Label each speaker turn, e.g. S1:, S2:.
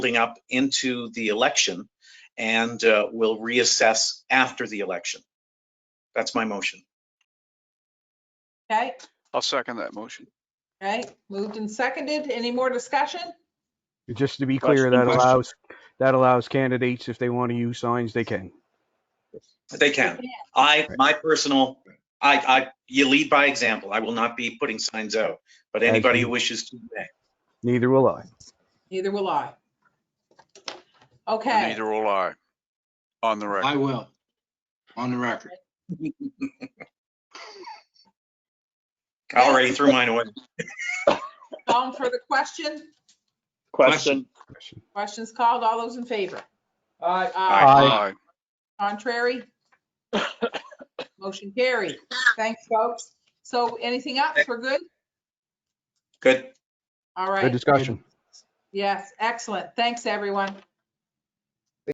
S1: building up into the election and uh, we'll reassess after the election. That's my motion.
S2: Okay,
S3: I'll second that motion.
S2: right, moved and seconded. Any more discussion?
S4: Just to be
S3: Question,
S4: clear, that
S3: question.
S4: allows, that allows candidates, if they want to use signs, they can.
S1: They can. I, my personal, I, I, you lead by example. I will not be putting signs out, but anybody who wishes to, may.
S4: Neither will I.
S2: Neither will I. Okay,
S3: Neither will I. On the record.
S5: I will, on the record.
S1: I already threw mine away.
S2: calling for the question.
S5: Question.
S4: Question.
S2: Questions called. All those in favor?
S6: Aye.
S2: Aye.
S3: Aye.
S2: Contrary? Motion carried. Thanks, folks. So anything else? We're good?
S1: Good.
S2: All
S4: Good
S2: right.
S4: discussion.
S2: Yes, excellent. Thanks, everyone.